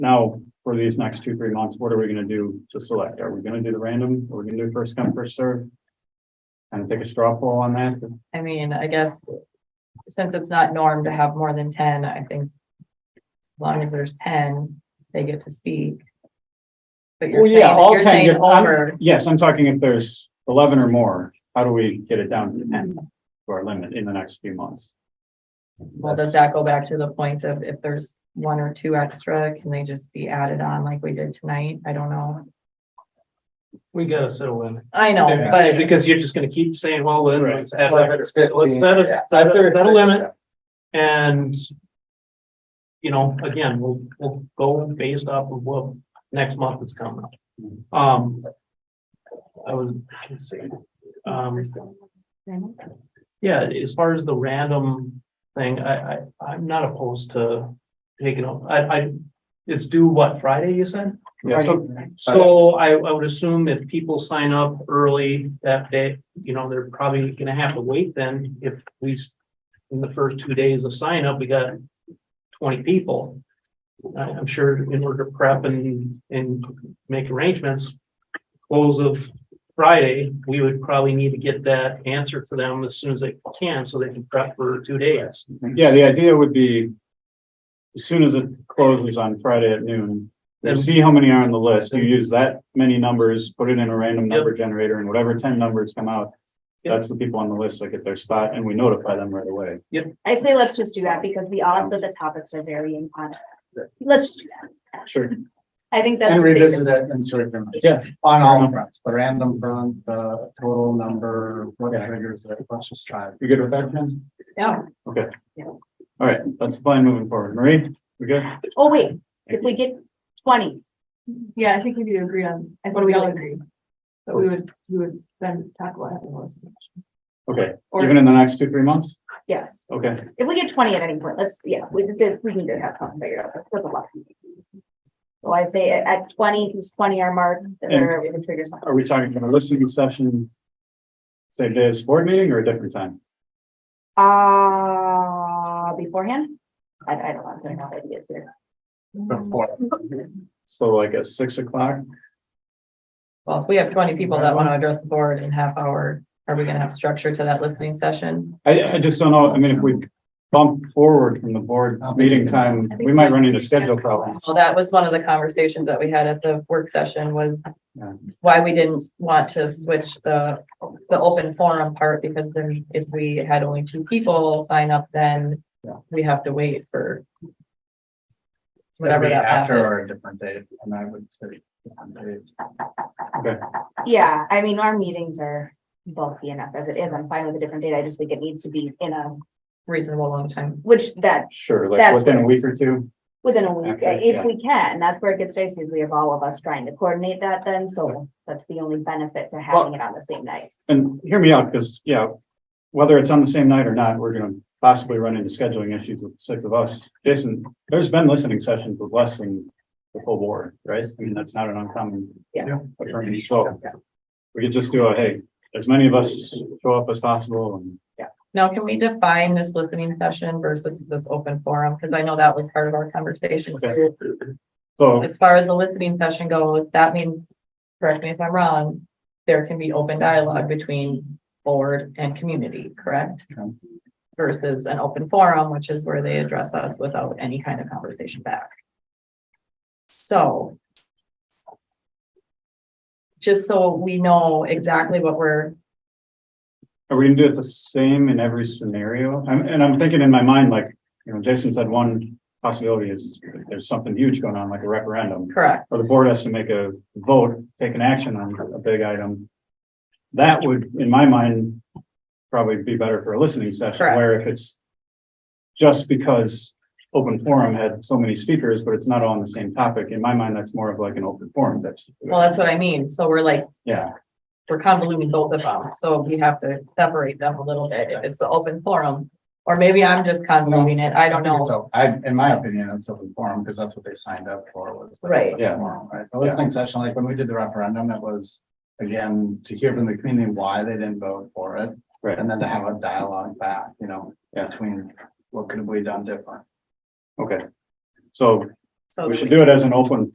Now, for these next two, three months, what are we gonna do to select? Are we gonna do the random? Are we gonna do first come, first serve? And take a straw poll on that? I mean, I guess since it's not norm to have more than ten, I think as long as there's ten, they get to speak. But you're Well, saying, yeah, all you're 10 saying get- I'm- over, Yes, I'm talking if there's eleven or more, how do we get it down to ten? To our limit in the next few months? well, does that go back to the point of if there's one or two extra, can they just be added on like we did tonight? I don't know. We gotta set a limit. I know, but Because you're just gonna keep saying, well, then Right. let's add, Well, if let's it's set a, 15, set a set a limit and you know, again, we'll, we'll go based off of what next month is coming up. Um, I was, let's see, um, yeah, as far as the random thing, I, I, I'm not opposed to taking, a- I, I, it's due what, Friday, you said? Yeah, so, So I, I would assume if people sign up early that day, you know, they're probably gonna have to wait then if we, s- in the first two days of sign up, we got twenty people. I, I'm sure in order to prep and, and make arrangements, close of Friday, we would probably need to get that answer to them as soon as they can, so they can prep for two days. yeah, the idea would be as soon as it closes on Friday at noon, you Then- see how many are on the list. You use that many numbers, put it in a random Yep. number generator and whatever ten numbers come out, Yep. that's the people on the list that get their spot and we notify them right away. I'd say let's just do that because the odds that the topics are varying on. it. Let's, just do that. Sure. I think that's. And the revisit safest. it in two different. Yeah. On all fronts, the random front, the total number, what triggers it, let's just try it. You good with that, Ken? yeah, Okay. Yeah. All right, that's the plan moving forward. Marie, we good? Oh, wait, if we get twenty, yeah, I think we do agree on, I think we all agree. But we would, we would then talk about having those. Okay, Or- even in the next two, three months? yes, Okay, if we get twenty at any point, let's, yeah, we can say, we can get that one figured out, that's a lot. So I say at- at twenty, because twenty are marked, or we can trigger something. are we talking from a listening session? Same day as board meeting or a different time? Uh, beforehand? I, I don't want to have ideas here. Mm-hmm. Before, So like at six o'clock? Well, if we have twenty people that want to address the board in half hour, are we gonna have structure to that listening session? I, I just don't know, I mean, if we bump forward from the board meeting time, we might run into schedule problems. Well, that was one of the conversations that we had at the work session was Yeah. why we didn't want to switch the, the open forum part, because then if we had only two people sign up, then Yeah. we have to wait for whatever whatever that after happens. or a different date, and I would say. different date. Yeah, I mean, our meetings are bulky enough as it is. I'm fine with a different date. I just think it needs to be in a, reasonable long time. which that Sure, like That's within a week or two. Within a week, Okay, yeah. if we can, that's where it gets dicey, is we have all of us trying to coordinate that then, so that's the only benefit to having it on the same night. And hear me out, because, yeah, whether it's on the same night or not, we're gonna possibly run into scheduling issues with six of us. Jason, there's been listening sessions with less than the full board, right? I mean, that's not an uncommon. Yeah. occurrence. So we could just do a, hey, as many of us show up as possible and Now, can we define this listening session versus this open forum? Because I know that was part of our conversation Okay. too. so, as far as the listening session goes, that means, correct me if I'm wrong, there can be open dialogue between board and community, correct? Okay. Versus an open forum, which is where they address us without any kind of conversation back. So just so we know exactly what we're, are we gonna do it the same in every scenario? I'm, and I'm thinking in my mind, like, you know, Jason said one possibility is if there's something huge going on, like a referendum. correct, or the board has to make a vote, take an action on a big item. That would, in my mind, probably be better for a listening session, Correct. where if it's just because open forum had so many speakers, but it's not all on the same topic, in my mind, that's more of like an open forum that's. well, that's what I mean, so we're like, Yeah, we're convoluting both of them, so we have to separate them a little bit, if it's the open forum. Or maybe I'm just convoluting it, I don't think know. it's o- I, in my opinion, it's open forum, because that's what they signed up for, was. the Right. open Yeah. forum, Right, the listening session, like when we did the referendum, it was, again, to hear from the community why they didn't vote for it. Right. And then to have a dialogue back, you know, Yeah. between what could have we done different? okay. So So We that should do it as an open